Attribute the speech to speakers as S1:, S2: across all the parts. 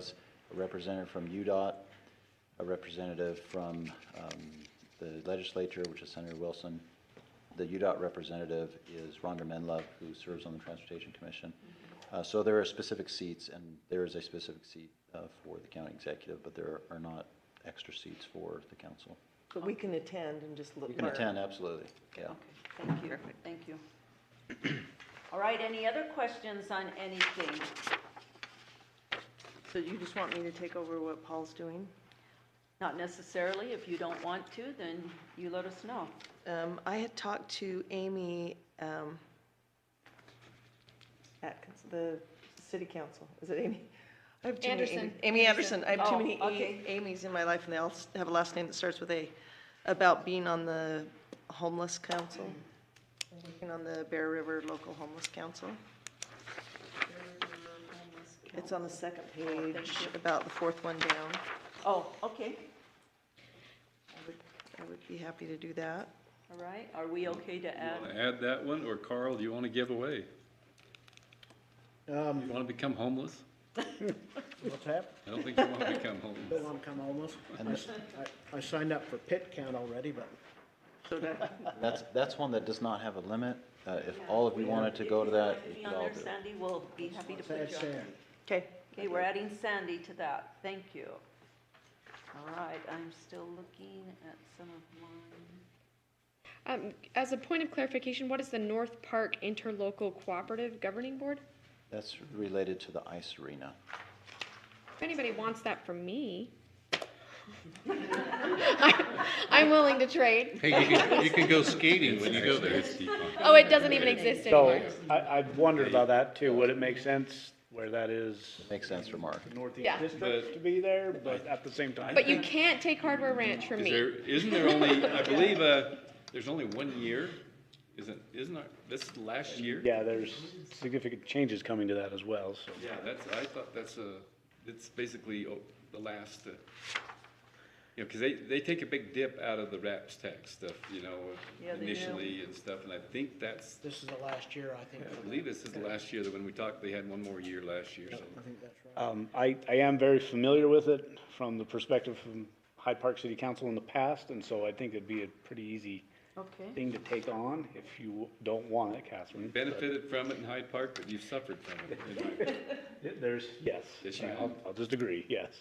S1: a representative from UDOT, a representative from um, the legislature, which is Senator Wilson. The UDOT representative is Rhonda Menlove, who serves on the Transportation Commission. Uh, So there are specific seats, and there is a specific seat uh, for the county executive, but there are not extra seats for the council.
S2: But we can attend and just look.
S1: You can
S2: learn.
S1: attend, absolutely, yeah.
S3: Okay, thank you, thank you. All right, any other questions on anything?
S2: So you just want me to take over what Paul's doing?
S3: Not necessarily, if you don't want to, then you let us know.
S2: Um, I had talked to Amy, um, at cons- the city council, is it Amy? I have too many
S4: Anderson.
S2: Amy's. Amy Anderson, I have too
S3: Oh,
S2: many
S3: okay.
S2: A- Amy's in my life, and they all s- have a last name that starts with A, about being on the homeless council, working on the Bear River Local Homeless Council. It's on the second page, about the fourth one down.
S3: Oh, okay,
S2: I would- I would be happy to do that.
S3: all right, are we okay to add?
S5: Want to add that one, or Carl, do you want to give away?
S6: Um,
S5: You want to become homeless?
S6: what's that?
S5: I don't think you want to become
S6: Don't
S5: homeless.
S6: want to come homeless.
S1: And
S6: I s- I, I signed up for pit count already, but
S1: That's, that's one that does not have a limit. Uh, If all of you wanted to go to that,
S3: If
S1: you
S3: you
S1: could
S3: want
S1: all
S3: be on
S1: do
S3: there,
S1: it.
S3: Sandy, we'll be happy to put
S6: sad
S3: you on.
S6: sand.
S2: Okay.
S3: Okay, we're adding Sandy to that, thank you. All right, I'm still looking at some of mine.
S4: Um, as a point of clarification, what is the North Park Interlocal Cooperative Governing Board?
S1: That's related to the ice arena.
S4: If anybody wants that from me, I- I'm willing to trade.
S7: Hey, you can, you can go skating when you go there.
S4: Oh, it doesn't even exist
S8: So,
S4: anymore.
S8: I, I've wondered about that too, would it make sense where that is
S1: Makes sense for Mark.
S8: Northeast
S4: Yeah.
S8: District to be there, but at the same time?
S4: But you can't take Hardware Ranch from
S5: Is
S4: me.
S5: there, isn't there only, I believe, uh, there's only one year, isn't, isn't our- this last year?
S8: Yeah, there's significant changes coming to that as well, so.
S5: Yeah, that's, I thought that's a, it's basically oh, the last, uh, you know, because they, they take a big dip out of the RAPS tax stuff, you know,
S3: Yeah, they do.
S5: initially and stuff, and I think that's,
S6: This is the last year, I think.
S5: I
S6: for
S5: believe
S6: them.
S5: this is the last year, that when we talked, they had one more year last year, so.
S6: I think that's right.
S8: Um, I, I am very familiar with it from the perspective from Hyde Park City Council in the past, and so I think it'd be a pretty easy
S3: Okay,
S8: thing to take on if you don't want it, Catherine. but
S5: benefited from it in Hyde Park, but you've suffered from it.
S8: There's, yes,
S5: Yes, you
S8: I'll, I'll just agree, yes.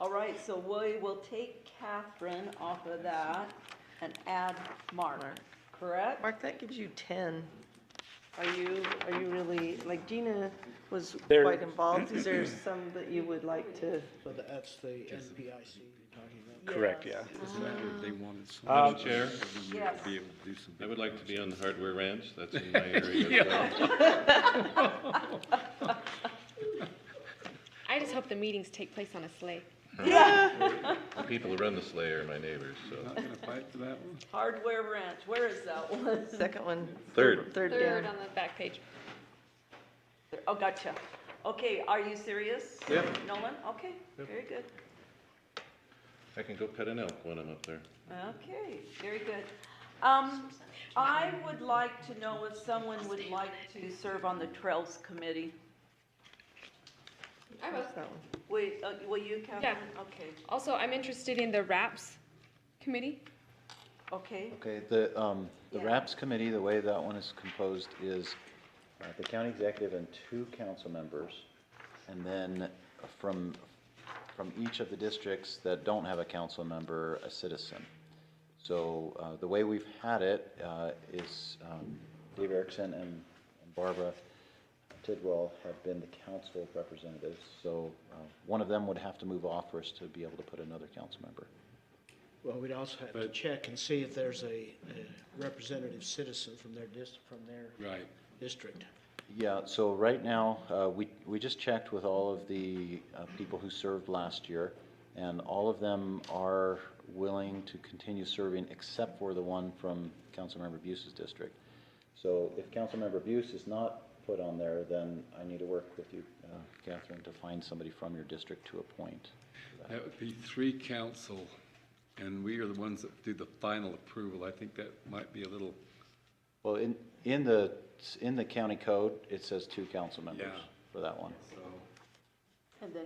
S3: all right, so we will take Catherine off of that and add Mark, correct?
S2: Mark, that gives you 10.
S3: Are you,
S2: Are you really, like Gina was
S8: There-
S2: quite involved. Is there some that you would like to?
S6: So tha- that's the NPIC you're talking about.
S8: Correct, yeah.
S5: They wanted so
S8: Um,
S5: much
S7: Chair,
S3: yes,
S5: to be able to do some.
S7: I would like to be on the hardware ranch, that's in my area. as well.
S4: I just hope the meetings take place on a sleigh.
S7: The people who run the sleigh are my neighbors, so.
S5: Not gonna fight for that one?
S3: Hardware Ranch, where is that one?
S2: Second one,
S7: Third,
S2: third
S4: Third
S2: down.
S4: on the back page.
S3: Oh, gotcha. Okay, are you serious?
S7: Yep.
S3: Nolan, okay, very good.
S7: I can go pet an elk when I'm up there.
S3: Okay, very good. Um, I would like to know if someone would like to serve on the Trails Committee.
S4: I will.
S2: That one.
S3: Will, uh, will you, Catherine? Okay,
S4: Also, I'm interested in the RAPS committee.
S3: okay,
S1: Okay, the, um, the
S3: Yeah.
S1: RAPS committee, the way that one is composed is uh, the county executive and two council members. And then from, from each of the districts that don't have a council member, a citizen. So, uh, the way we've had it, uh, is, um, Dave Erickson and and Barbara Tidwell have been the council representatives. So, uh, one of them would have to move off for us to be able to put another council member.
S6: Well, we'd also have to check and see if there's a a representative citizen from their dis, from their
S5: Right.
S6: district.
S1: Yeah, so right now, uh, we, we just checked with all of the uh, people who served last year, and all of them are willing to continue serving except for the one from Councilmember Buse's district. So if Councilmember Buse is not put on there, then I need to work with you, uh, Catherine, to find somebody from your district to appoint.
S5: That would be three council, and we are the ones that do the final approval. I think that might be a little,
S1: Well, in, in the, in the county code, it says two council members
S5: Yeah.
S1: for that one.
S5: so.
S3: and then